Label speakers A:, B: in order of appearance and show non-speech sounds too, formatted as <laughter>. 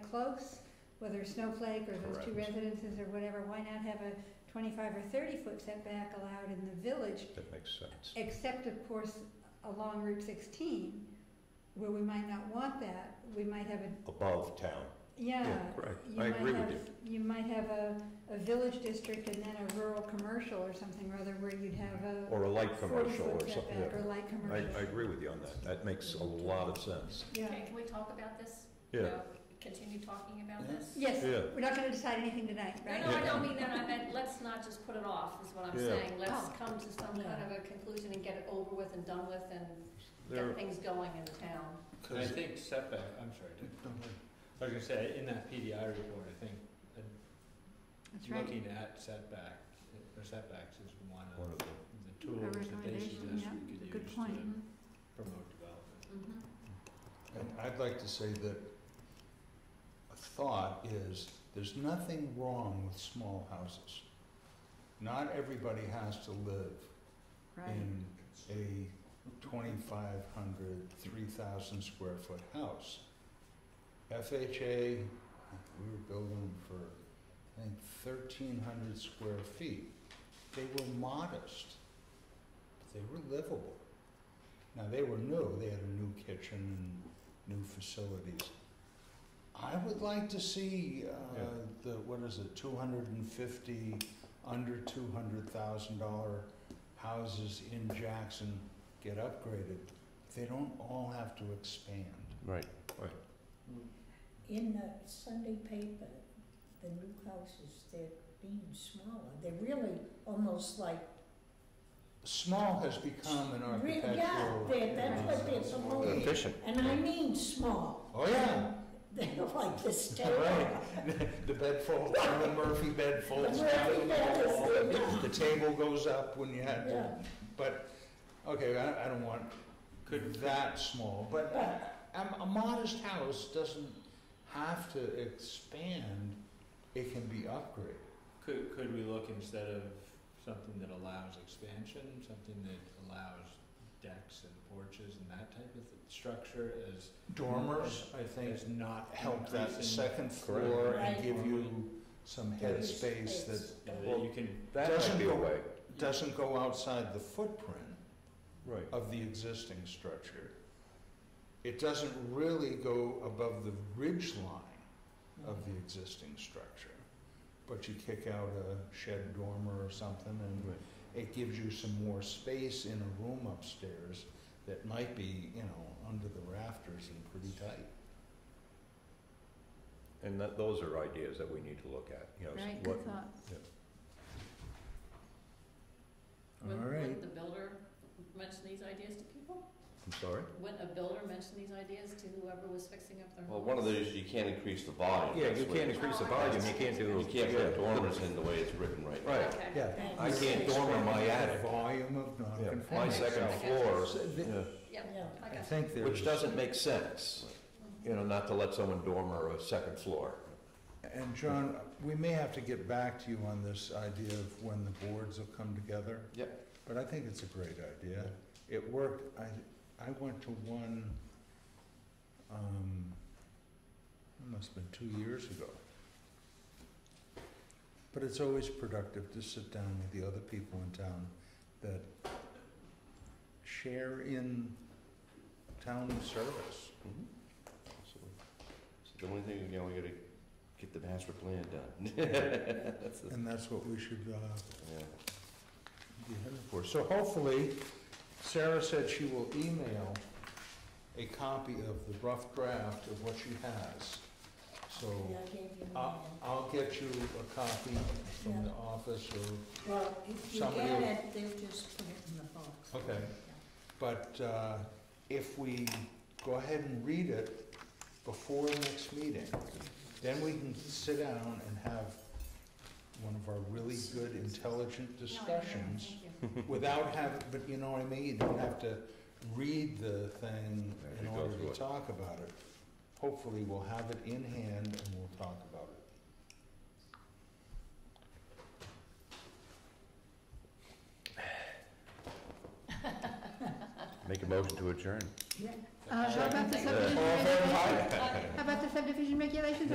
A: close, whether Snowflake or those two
B: Correct.
A: residences or whatever, why not have a twenty-five or thirty-foot setback allowed in the village?
B: That makes sense.
A: Except, of course, along Route sixteen, where we might not want that, we might have a,
B: Above town.
A: yeah.
B: correct.
A: you
B: I
A: might
B: agree with
A: have-
B: you.
A: You might have a, a village district and then a rural commercial or something or other where you'd have a
B: Or a light commercial or
A: forty-foot
B: something.
A: setback or light
B: I,
A: commercial.
B: I agree with you on that. That makes a lot of sense.
A: Yeah,
C: Okay, can we talk about this?
B: Yeah,
C: Uh, Continue talking about this?
A: yes,
B: yeah.
A: we're not gonna decide anything tonight,
C: No,
A: right?
C: no, I
B: Yeah.
C: don't mean that, I meant, let's not just put it off, is what I'm
B: Yeah.
C: saying. Let's
A: Oh.
C: come to some kind of a conclusion and get it over with and done with and
B: There,
C: get things going in the town.
D: And I think setback, I'm sorry, Dick. I was gonna say, in that PDI report, I think, uh,
A: That's right.
D: looking at setback, uh, or setbacks is one
B: one
D: of
B: of them.
D: the tools that they
A: recommendation,
D: suggest
A: yeah,
D: we could
A: good
D: use to
A: point.
D: promote development.
C: Mhm.
E: And I'd like to say that a thought is, there's nothing wrong with small houses. Not everybody has to live in a 2,500, 3,000 square foot house. FHA, we were building for, I think, 1,300 square feet. They were modest, but they were livable. Now, they were new, they had a new kitchen and new facilities. I would like to see, uh,
B: Yeah.
E: the, what is it, 250, under $200,000 houses in Jackson get upgraded, they don't all have to expand.
B: Right.
F: In the Sunday paper, the new houses, they're being smaller, they're really almost like,
E: Small has become an
F: Re-
E: architectural.
F: yeah, they- that's what they're supposed to,
B: Efficient.
F: and I mean small. <laughs>
E: Oh, yeah,
F: They're like the
E: <laughs>
F: state.
E: right. <laughs> The bed folds, the Murphy bed folds
F: The Murphy
E: down to
F: bed
E: the
F: is
E: wall.
F: good.
E: The table goes up when you had to,
F: Yeah,
E: but, okay, I, I don't want
D: Could-
E: that small, but a, a modest house doesn't have to expand, it can be upgraded.
D: Could, could we look instead of something that allows expansion, something that allows decks and porches and that type of th- structure as,
E: Dormers, I think,
D: as not
E: help that
D: increasing-
E: second floor and
F: Right.
E: give you some headspace that
D: That you can
B: That might
E: Doesn't
B: be a
E: go-
B: way.
E: doesn't go outside the footprint
B: Right.
E: of the existing structure. It doesn't really go above the ridge line of the existing structure. But you kick out a shed dormer or something and it gives you some more space in a room upstairs that might be, you know, under the rafters and pretty tight.
B: And that, those are ideas that we need to look at, you know. s-
A: Right,
B: what-
A: good thought.
C: Would-
E: All right.
C: Would the builder mention these ideas to people?
B: I'm sorry?
C: Would a builder mention these ideas to whoever was fixing up their home?
G: Well, one of those, you can't increase the volume.
B: Yeah,
G: That's
B: you
G: what-
B: can't increase the volume, you can't do.
G: You can't
B: yeah.
G: put dormers in the way it's written right now.
B: Right,
C: Okay.
E: Yeah.
F: thanks.
B: I can't dormer my attic.
E: Volume of
B: Yeah,
E: non-conformity.
B: My second floor,
E: So the-
B: yeah.
C: Yeah,
F: Yeah.
C: I
E: I
C: got it.
E: think there's.
B: which doesn't make sense, you know, not to let someone dormer a second floor.
E: And John, we may have to get back to you on this idea of when the boards will come together.
G: Yep.
E: But I think it's a great idea. It worked, I, I went to one, um, it must've been two years ago. But it's always productive to sit down with the other people in town that share in town service.
G: Mhm. So so the only thing, you know, we gotta get the master plan done. That's the-
E: And that's what we should, uh,
G: <laughs> yeah.
E: be headed for. So hopefully, Sarah said she will email a copy of the rough draft of what she has. So
F: Yeah, I gave you
E: I-
F: mine.
E: I'll get you a copy from the office or,
F: Well, if you
E: Somebody
F: get
E: will-
F: it, they'll just put it in the box.
E: okay. But uh, if we go ahead and read it before the next meeting, then we can sit down and have one of our really good, intelligent
C: No, I know,
E: discussions
C: thank you.
E: without having, but you know what I mean, you don't have to read the thing
B: Yeah,
E: in
B: you go
E: order
B: through
E: to
B: it.
E: talk about it. Hopefully, we'll have it in hand and we'll talk about it.
B: Make a motion to adjourn.
A: Uh, how about the
C: Second.
A: subdivision
B: Uh,
A: regulations?
C: Okay.
A: <laughs> How about the subdivision regulations?